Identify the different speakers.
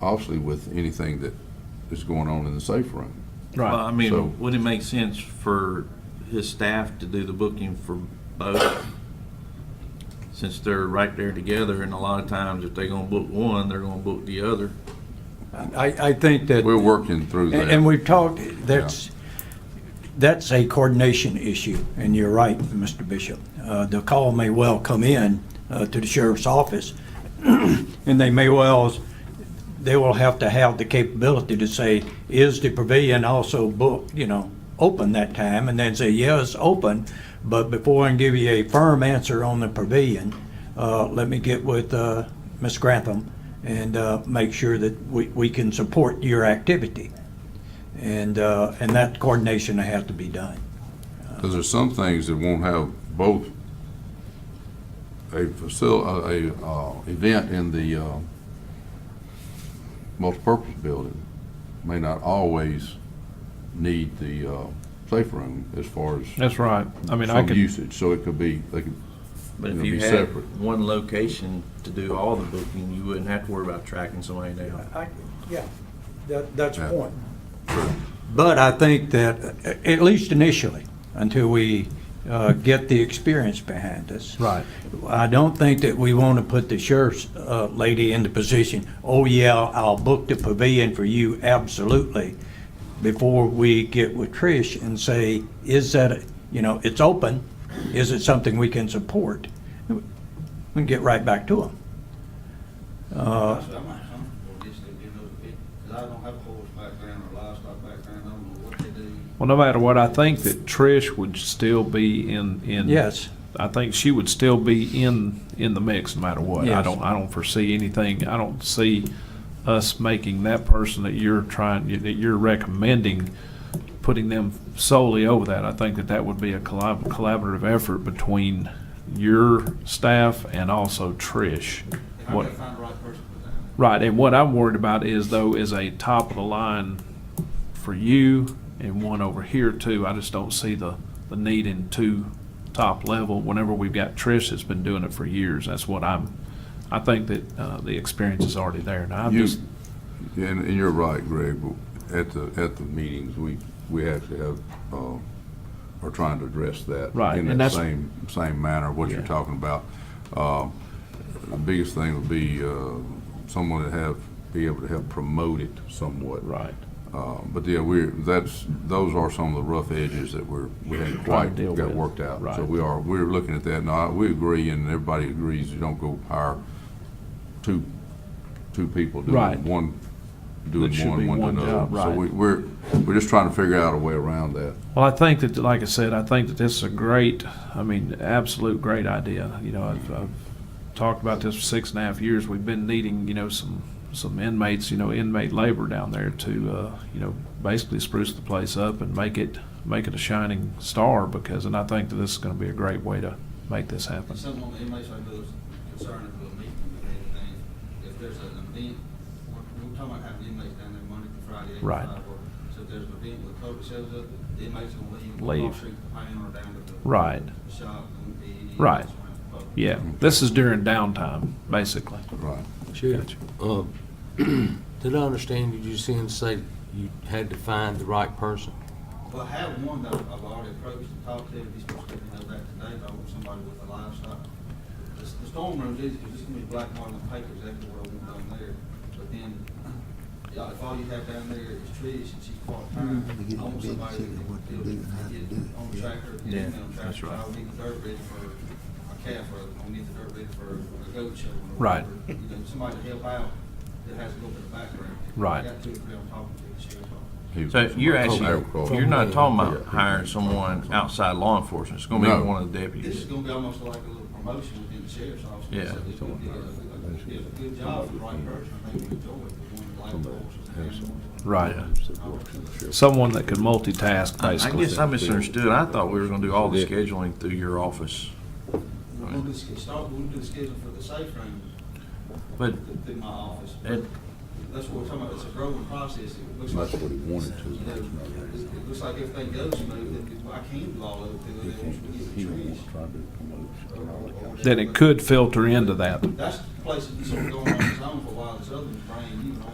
Speaker 1: obviously with anything that is going on in the safe room.
Speaker 2: Well,
Speaker 3: Right.
Speaker 2: I
Speaker 1: So-
Speaker 2: mean, would it make sense for his staff to do the booking for both? Since they're right there together, and a lot of times if they're gonna book one, they're gonna book the other.
Speaker 3: I, I think that,
Speaker 1: We're working through that.
Speaker 3: and and we've talked, that's, that's a coordination issue, and you're right, Mr. Bishop. Uh, The call may well come in uh, to the sheriff's office, and they may well, they will have to have the capability to say, is the pavilion also booked, you know, open that time? And then say, yes, open, but before I can give you a firm answer on the pavilion, uh, let me get with, uh, Ms. Grantham and, uh, make sure that we, we can support your activity. And, uh, and that coordination has to be done.
Speaker 1: Because there's some things that won't have both a facil, a, a, uh, event in the, uh, multipurpose building may not always need the, uh, safe room as far as
Speaker 4: That's right. I mean, I
Speaker 1: some
Speaker 4: could,
Speaker 1: usage, so it could be, they could,
Speaker 2: But if
Speaker 1: It'll
Speaker 2: you
Speaker 1: be
Speaker 2: had
Speaker 1: separate.
Speaker 2: one location to do all the booking, you wouldn't have to worry about tracking somebody down.
Speaker 3: yeah, that, that's
Speaker 1: the Yeah.
Speaker 3: point. But I think that, a- at least initially, until we uh, get the experience behind us.
Speaker 4: Right.
Speaker 3: I don't think that we want to put the sheriff's uh, lady in the position, oh, yeah, I'll book the pavilion for you, absolutely, before we get with Trish and say, is that, a- you know, it's open, is it something we can support? We can get right back to them.
Speaker 5: I said, I might some, or just to give them a bit, 'cause I don't have a horse background or livestock background, I don't know what they do.
Speaker 4: well, no matter what, I think that Trish would still be in, in.
Speaker 3: Yes.
Speaker 4: I think she would still be in, in the mix no matter what. I
Speaker 3: Yes.
Speaker 4: don't, I don't foresee anything, I don't see us making that person that you're trying, that you're recommending, putting them solely over that. I think that that would be a collab, collaborative effort between your staff and also Trish.
Speaker 5: If I
Speaker 4: What-
Speaker 5: gotta find the right person for that.
Speaker 4: Right, and what I'm worried about is though is a top of the line for you and one over here too. I just don't see the, the need in two top level whenever we've got Trish that's been doing it for years. That's what I'm, I think that, uh, the experience is already there. Now, I'm
Speaker 1: You-
Speaker 4: just,
Speaker 1: and, and you're right, Greg, but at the, at the meetings, we, we actually have, uh, are trying to address that.
Speaker 4: Right,
Speaker 1: In
Speaker 4: and
Speaker 1: that
Speaker 4: that's-
Speaker 1: same, same manner, what you're
Speaker 4: Yeah.
Speaker 1: talking about. Uh, The biggest thing would be, uh, someone to have, be able to help promote it somewhat.
Speaker 4: right,
Speaker 1: Uh, But yeah, we're, that's, those are some of the rough edges that we're, we hadn't
Speaker 4: Trying
Speaker 1: quite
Speaker 4: to deal
Speaker 1: got
Speaker 4: with.
Speaker 1: worked out. So
Speaker 4: Right.
Speaker 1: we are, we're looking at that, Now we agree, and everybody agrees, you don't go hire two, two people
Speaker 4: Right.
Speaker 1: doing one, doing
Speaker 4: That should
Speaker 1: one,
Speaker 4: be one
Speaker 1: one to
Speaker 4: job,
Speaker 1: another. So
Speaker 4: right.
Speaker 1: we, we're, we're just trying to figure out a way around that.
Speaker 4: Well, I think that, like I said, I think that this is a great, I mean, absolute great idea. You know, I've, I've talked about this for six and a half years. We've been needing, you know, some, some inmates, you know, inmate labor down there to, uh, you know, basically spruce the place up and make it, make it a shining star because, and I think that this is gonna be a great way to make this happen.
Speaker 5: Some of the inmates I know is concerned if we'll meet and everything, if there's an event, we're, we're talking about having inmates down there Monday through Friday. eight to
Speaker 4: Right.
Speaker 5: five, or- So if there's an event where COVID shows up, the inmates will leave.
Speaker 4: Leave.
Speaker 5: Street or down to the.
Speaker 4: Right.
Speaker 5: Shop and the.
Speaker 4: Right. Yeah, this is during downtime, basically.
Speaker 1: Right.
Speaker 4: Gotcha.
Speaker 6: Uh, Did I understand you just then say you had to find the right person?
Speaker 5: Well, I have one that I've already approached and talked to, he's supposed to let me know that today, but I want somebody with a livestock. The s- The storm room's easy, because it's gonna be black mark on the paper, exactly what I want down there, but then, yeah, if all you have down there is trees and she's part-time, I want somebody that can do it, get it on tractor, get
Speaker 2: Yeah,
Speaker 5: it on
Speaker 2: that's
Speaker 5: tractor,
Speaker 2: right.
Speaker 5: I'll need the dirt ready for a calf, or I'll need the dirt ready for a goat show. or
Speaker 4: Right.
Speaker 5: whatever. You know, somebody to help out that has a little bit of background.
Speaker 4: Right.
Speaker 5: I got two or three I'm talking to, the sheriff's office.
Speaker 2: So you're actually,
Speaker 1: Agriculture.
Speaker 2: you're not talking about hiring someone outside law enforcement. It's gonna
Speaker 1: No.
Speaker 2: be one of the
Speaker 5: This is
Speaker 2: deputies.
Speaker 5: gonna be almost like a little promotion within the sheriff's office.
Speaker 2: Yeah.
Speaker 5: So it's gonna be a- a- a- a good job for the right person, I think we enjoy it, we want to like the horses and animals.
Speaker 4: Right.
Speaker 1: Yeah.
Speaker 4: Someone that could multitask,
Speaker 2: I I
Speaker 4: basically.
Speaker 2: guess I misunderstood. I thought we were gonna do all the scheduling through your office.
Speaker 5: We're gonna do, sch- start, we're gonna do the schedule for the safe room
Speaker 2: But
Speaker 5: th- through my office.
Speaker 2: it,
Speaker 5: That's what we're talking about, it's a growing process, it looks like.
Speaker 1: That's what he wanted to.
Speaker 5: You know, it- It looks like everything goes smooth, then I can do all of it, then once we get the trees. or- or-
Speaker 4: That it could filter into that.
Speaker 5: That's the place that's been going on its own for a while, this other one's brand new, and I